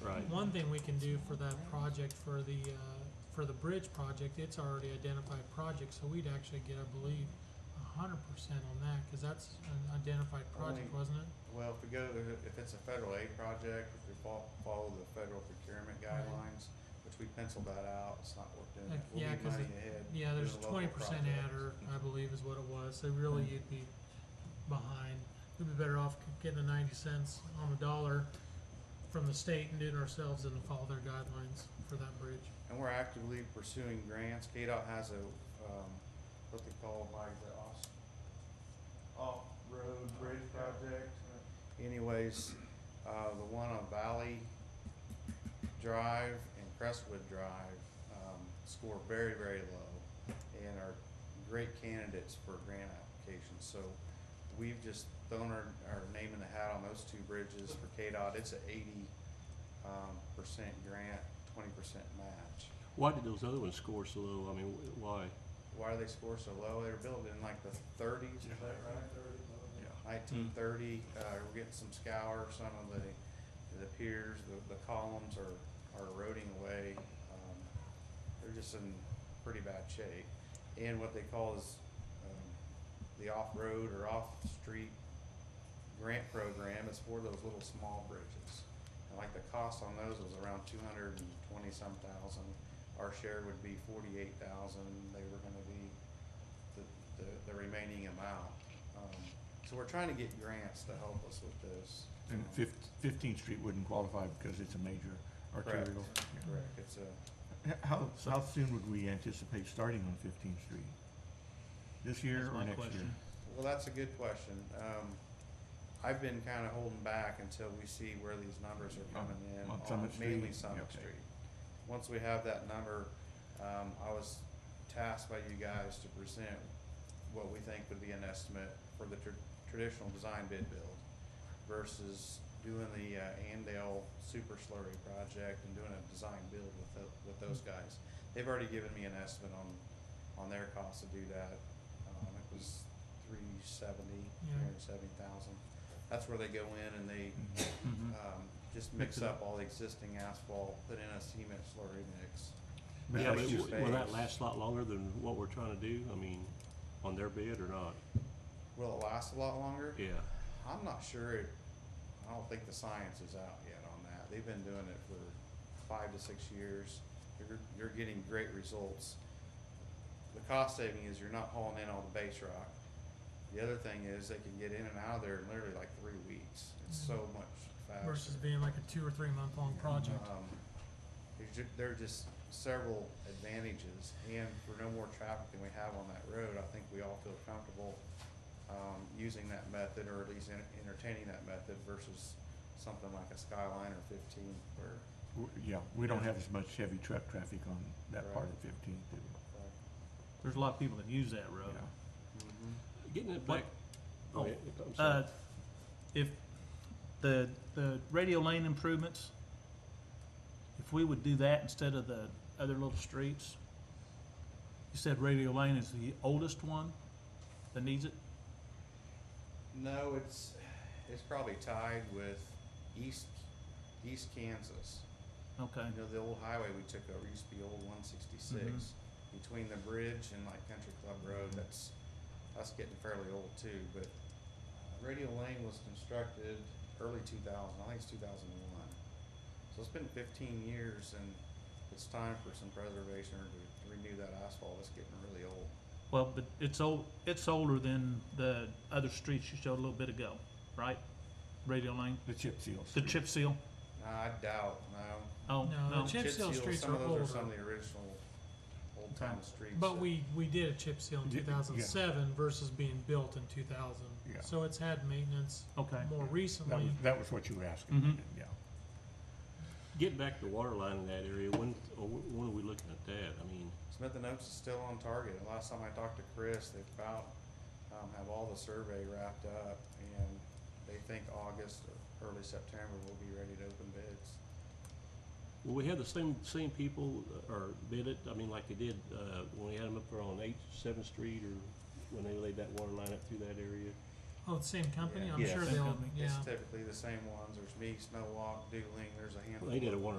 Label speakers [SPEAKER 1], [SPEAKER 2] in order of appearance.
[SPEAKER 1] Right.
[SPEAKER 2] One thing we can do for that project, for the, uh, for the bridge project, it's already identified project, so we'd actually get, I believe, a hundred percent on that, cause that's an identified project,
[SPEAKER 3] Only-
[SPEAKER 2] wasn't it?
[SPEAKER 3] Well, if we go, if it's a federal aid project, if we fol- follow the federal procurement
[SPEAKER 2] Right.
[SPEAKER 3] guidelines, which we penciled that out, it's not worth doing
[SPEAKER 2] Like,
[SPEAKER 3] that. We'll
[SPEAKER 2] yeah,
[SPEAKER 3] be
[SPEAKER 2] 'cause
[SPEAKER 3] money
[SPEAKER 2] it-
[SPEAKER 3] ahead.
[SPEAKER 2] Yeah, there's
[SPEAKER 3] These are
[SPEAKER 2] a
[SPEAKER 3] local
[SPEAKER 2] twenty percent
[SPEAKER 3] projects.
[SPEAKER 2] adder, I believe is what it was, so really you'd be behind. We'd be better off getting the ninety cents on the dollar from the state and doing it ourselves and follow their guidelines for that bridge.
[SPEAKER 3] And we're actively pursuing grants. KDOT has a, um, what they call like the off, off-road bridge project. Anyways, uh, the one on Valley Drive and Crestwood Drive, um, score very, very low and are great candidates for grant applications. So we've just thrown our, our name in the hat on those two bridges for KDOT. It's an eighty, um, percent grant, twenty percent match.
[SPEAKER 1] Why did those other ones score so low? I mean, wh- why?
[SPEAKER 3] Why do they score so low? They were built in like the thirties, is that right? Nineteen thirty, uh, we're getting some scour, some of the, the piers, the, the columns are, are eroding away. Um, They're just in pretty bad shape. And what they call is, um, the off-road or off-street grant program is for those little small bridges. And like the cost on those was around two hundred and twenty-some thousand. Our share would be forty-eight thousand. They were gonna be the, the, the remaining amount. Um, So we're trying to get grants to help us with this.
[SPEAKER 4] And
[SPEAKER 3] Um,
[SPEAKER 4] Fif- Fifteenth Street wouldn't qualify because it's a major arterial. Yeah.
[SPEAKER 3] Um, Correct, it's a,
[SPEAKER 4] H- How, so how soon would we anticipate starting on Fifteenth Street? This year or
[SPEAKER 5] That's my
[SPEAKER 4] next year?
[SPEAKER 5] question.
[SPEAKER 3] well, that's a good question. Um, I've been kinda holding back until we see where these numbers are coming in
[SPEAKER 4] Oh, On
[SPEAKER 3] on
[SPEAKER 4] Summit Street?
[SPEAKER 3] mainly
[SPEAKER 4] Yeah,
[SPEAKER 3] Summit
[SPEAKER 4] okay.
[SPEAKER 3] Street. Once we have that number, um, I was tasked by you guys to present what we think would be an estimate for the tr- traditional design bid build versus doing the uh, Andale Super Slurry project and doing a design build with tho- with those guys. They've already given me an estimate on, on their cost to do that. Um, it was three seventy,
[SPEAKER 2] Yeah.
[SPEAKER 3] three hundred seventy thousand. That's where they go in and they,
[SPEAKER 4] Mm-hmm.
[SPEAKER 3] um, just mix
[SPEAKER 4] Mix it up.
[SPEAKER 3] up all the existing asphalt, put in a cement slurry mix.
[SPEAKER 4] But
[SPEAKER 1] Yeah,
[SPEAKER 4] that's
[SPEAKER 1] but
[SPEAKER 4] just-
[SPEAKER 1] w- will that
[SPEAKER 3] phase.
[SPEAKER 1] last a lot longer than what we're trying to do? I mean, on their bid or not?
[SPEAKER 3] Will it last a lot longer?
[SPEAKER 1] Yeah,
[SPEAKER 3] I'm not sure. It, I don't think the science is out yet on that. They've been doing it for five to six years. You're, you're getting great results. The cost saving is you're not hauling in all the base rock. The other thing is they can get in and out of there in literally like three weeks. It's so much faster.
[SPEAKER 2] Versus being like a two or three month long project.
[SPEAKER 3] Um, there's ju- there are just several advantages, and for no more traffic than we have on that road, I think we all feel comfortable, um, using that method, or at least en- entertaining that method versus something like a Skyline or fifteen, or,
[SPEAKER 4] w- Yeah, we don't have as much heavy truck traffic on that part
[SPEAKER 3] Right.
[SPEAKER 4] of Fifteenth.
[SPEAKER 5] There's a lot of people that use that road.
[SPEAKER 1] getting it
[SPEAKER 5] What-
[SPEAKER 1] back. Oh,
[SPEAKER 5] oh,
[SPEAKER 1] I'm
[SPEAKER 5] Uh,
[SPEAKER 1] sorry.
[SPEAKER 5] if the, the radio lane improvements, if we would do that instead of the other little streets, you said radio lane is the oldest one that needs it?
[SPEAKER 3] No, it's, it's probably tied with East, East Kansas.
[SPEAKER 5] Okay,
[SPEAKER 3] You know, the old highway we took over used to be old one sixty-six,
[SPEAKER 2] Mm-hmm.
[SPEAKER 3] between the bridge and like Country Club Road, that's, that's getting fairly old too, but uh, Radio Lane was constructed early two thousand, I think it's two thousand and one. So it's been fifteen years and it's time for some preservation or to renew that asphalt, it's getting really old.
[SPEAKER 5] well, but it's old, it's older than the other streets you showed a little bit ago, right? Radio lane,
[SPEAKER 4] The chip seal.
[SPEAKER 5] the
[SPEAKER 4] street.
[SPEAKER 5] chip seal,
[SPEAKER 3] Nah, I doubt, no.
[SPEAKER 5] oh,
[SPEAKER 2] No,
[SPEAKER 5] no,
[SPEAKER 2] the chip seal streets
[SPEAKER 3] Some
[SPEAKER 2] are
[SPEAKER 3] of those are some of
[SPEAKER 2] older.
[SPEAKER 3] the original old time streets.
[SPEAKER 2] But
[SPEAKER 3] that-
[SPEAKER 2] we, we did a chip seal in
[SPEAKER 4] Yeah,
[SPEAKER 2] two
[SPEAKER 4] yeah.
[SPEAKER 2] thousand seven versus being built in two thousand.
[SPEAKER 4] Yeah.
[SPEAKER 2] So it's had maintenance
[SPEAKER 5] okay.
[SPEAKER 2] more
[SPEAKER 4] That
[SPEAKER 2] recently.
[SPEAKER 4] was, that was what you were asking,
[SPEAKER 5] Mhm.
[SPEAKER 4] yeah.
[SPEAKER 1] Getting back to the water line in that area, when, oh, wh- when are we looking at that? I mean,
[SPEAKER 3] Smith and Oaks is still on target. The Last time I talked to Chris, they about um, have all the survey wrapped up, and they think August or early September we'll be ready to open bids.
[SPEAKER 1] will we have the same, same people uh, or bid it? I mean, like they did, uh, when we had them up there on Eighth, Seventh Street or when they laid that water line up through that area?
[SPEAKER 2] Oh, the same company?
[SPEAKER 3] Yeah.
[SPEAKER 2] I'm
[SPEAKER 4] Yeah,
[SPEAKER 2] sure
[SPEAKER 5] same
[SPEAKER 2] they'll,
[SPEAKER 5] company.
[SPEAKER 2] yeah.
[SPEAKER 3] It's typically the same ones, there's me, Snowwalk, Dueling, there's a handful.
[SPEAKER 1] They did a wonderful